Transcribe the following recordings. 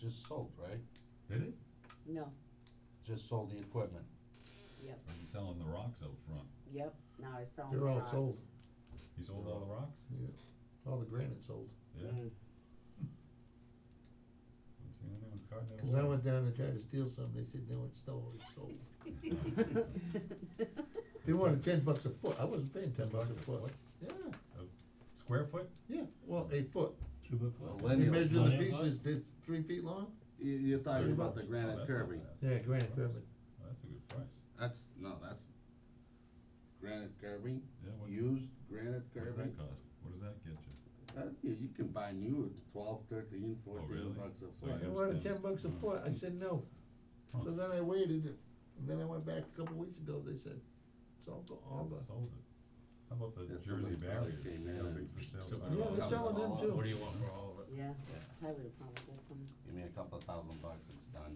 just sold, right? Did it? No, Just sold the equipment. yep, Or he's selling the rocks out front? yep, now I sell them They're all rocks. sold, He sold all the rocks? yeah. All the granite sold. Yeah. Mm. I've seen anyone carting it Cause I along. went down and tried to steal some, they said, no, it's still, it's sold. They wanted ten bucks a foot, I wasn't paying ten bucks a foot. Yeah, Square foot? yeah, well, a foot. Cubic You Millennial. measure the Nine pieces, they're three feet long? You, you're talking Thirty about the bucks. Oh, granite that's not Kirby. bad. Yeah, granite pyramid. That's a good price. That's, no, that's granite Kirby, Yeah, what, used granite what's Kirby. that cost? What does that get you? Uh, you, you can buy new at twelve, thirteen, fourteen really? bucks a So you foot. They Yeah, wanted stand. ten bucks a Mm. foot, I said no. So Huh. then I waited, and then I went back a couple weeks ago, they said, it's all, go- all the, Sold it. How about the Yeah, Jersey somebody probably barrier? came in Got a and big for sale took sign. it yeah, all they're out. selling them too. What do you want for all of it? Yeah, Yeah. I would have probably got some, Give me a couple of thousand bucks, it's done.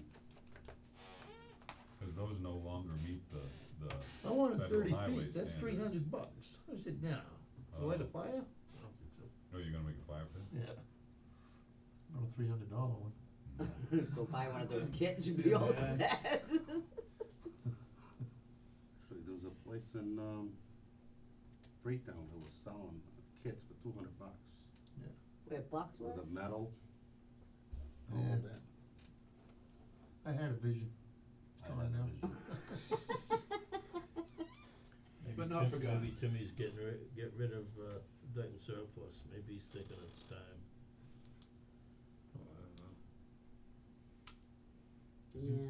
Cause those no longer meet the, the, oh, I wanted Federal thirty highway feet, that's standards. three hundred bucks, I said, no, to light a Uh, fire? I don't think so. oh, you're gonna make a fire pit? Yeah. Not a three hundred dollar one. go buy one of those kits, you'd be all set. Actually, there was a place in, um, Freetown that was selling kits for two hundred bucks Where Bucks with were? a metal, all Yeah, of that. I had a vision, I Come had on a now. vision. Maybe But not Tim- for God. Maybe Timmy's getting ri- get rid of uh Dayton surplus, maybe he's thinking it's time. Yeah,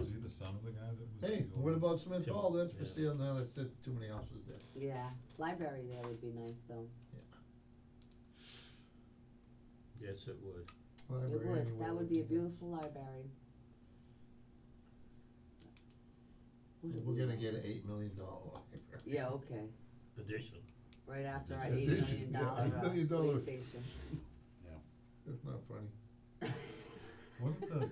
Is he the son of the guy that was? hey, the what owner? about Smith Tim- Hall, that's for yeah. sale now, that's, that's too many houses there. yeah, library there would be nice though, Yes, it would. it Library would, anywhere that would be a nice. beautiful library. Who do We're we gonna know? get an eight million dollar library. Yeah, okay, Additional. right after our Yeah, eight did you- million yeah, dollar eight uh, police million dollars. station. That's not funny. Wasn't the,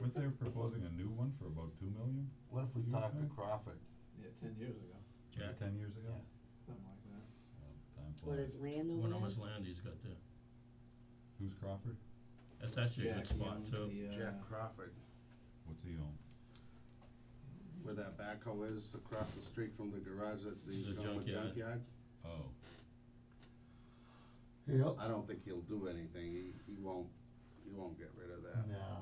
weren't they proposing a new one for about two million, What if we You talk to okay? Crawford? Yeah, ten years ago, like ten years ago? Yeah. something like that. Yeah, Time What flies. is land over Wonder there? how much land he's got there. Who's Crawford? That's actually a Jack, good he spot owns too. the, uh, Jack Crawford, What's he own? where that backhoe is across the street from the garage that's being The shown with junkyard. junkyard. Oh, uh, Yep. I don't think he'll do anything, he, he won't, he won't get rid of uh, Mm-hmm. that. No.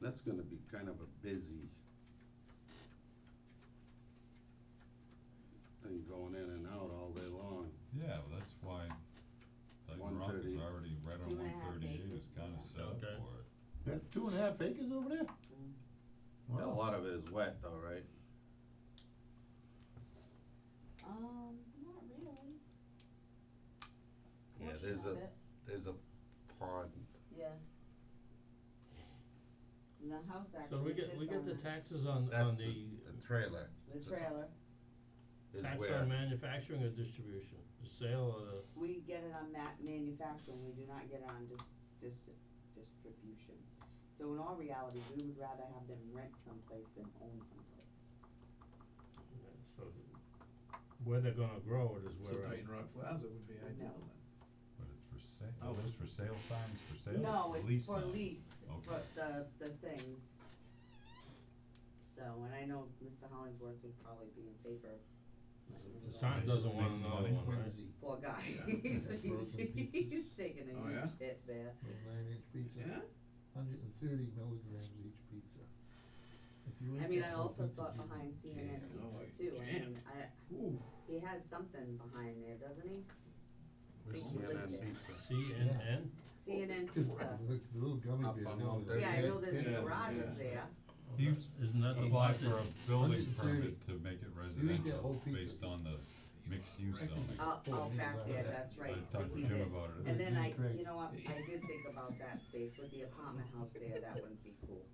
That's gonna be kind of a busy thing going in and out all day long. yeah, well, that's why Dyton Rock is 130. already right Two on and a one half thirty-eight, acres. it's kinda set up for Okay. it. That two and a half acres over there? Mm. Yeah, A Wow. lot of it is wet though, right? Um, not really. Yeah, Portion there's of a- it. There's a pond. Yeah. And the house So we actually sits get, we on get the the, taxes on, That's on the, the, the trailer the trailer, is tax where, on manufacturing or distribution, the sale or the, we get it on ma- manufacturing, we do not get it on dis- distri- distribution. So in all reality, we would rather have them rent someplace than own someplace. so where they're gonna grow it is So where I. Dayton Rock Plaza would be No. ideal then. But it's for sale, Oh. oh, it's for sale signs, for sale? No, it's for signs. lease, for Okay. the, the things. So, and I know Mr. Hollingsworth would probably be in favor of letting them Just go. Tom doesn't want Making another money. one, right? Whimsy. Poor guy, Yeah. he's, That's he's, broken he's pieces. taking Oh, a huge yeah? hit there. Little nine inch pizza, Yeah? hundred and thirty milligrams each pizza. If you I ate mean, I that whole also pizza, thought you'd behind be CNN jammed. Oh, Pizza like too, I mean, jammed. I, Ooh. he has something behind there, doesn't he? where's Think he lives CNN there. Pizza? CNN, CNN Good Pizza, lord, It's the little gummy Up bear. on no, Mount they're yeah, I Yeah, know there's a dead. yeah, garage is yeah. there, He isn't that the applied lot for that, a building 130. permit to make it You eat that residential whole pizza. based on the mixed use Right. zoning. out, Oh, out he back was out there, back. that's I right, talked he to Jim did. about it, And then I, Great. you know, what, I did think about that space with the apartment house there, that would be cool.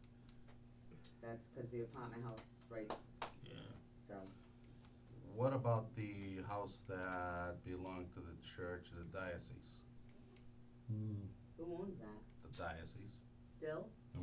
That's 'cause the apartment house, right, yeah, so, What about the house that belonged to the church, the diocese, Mm. who owns that, the diocese? still?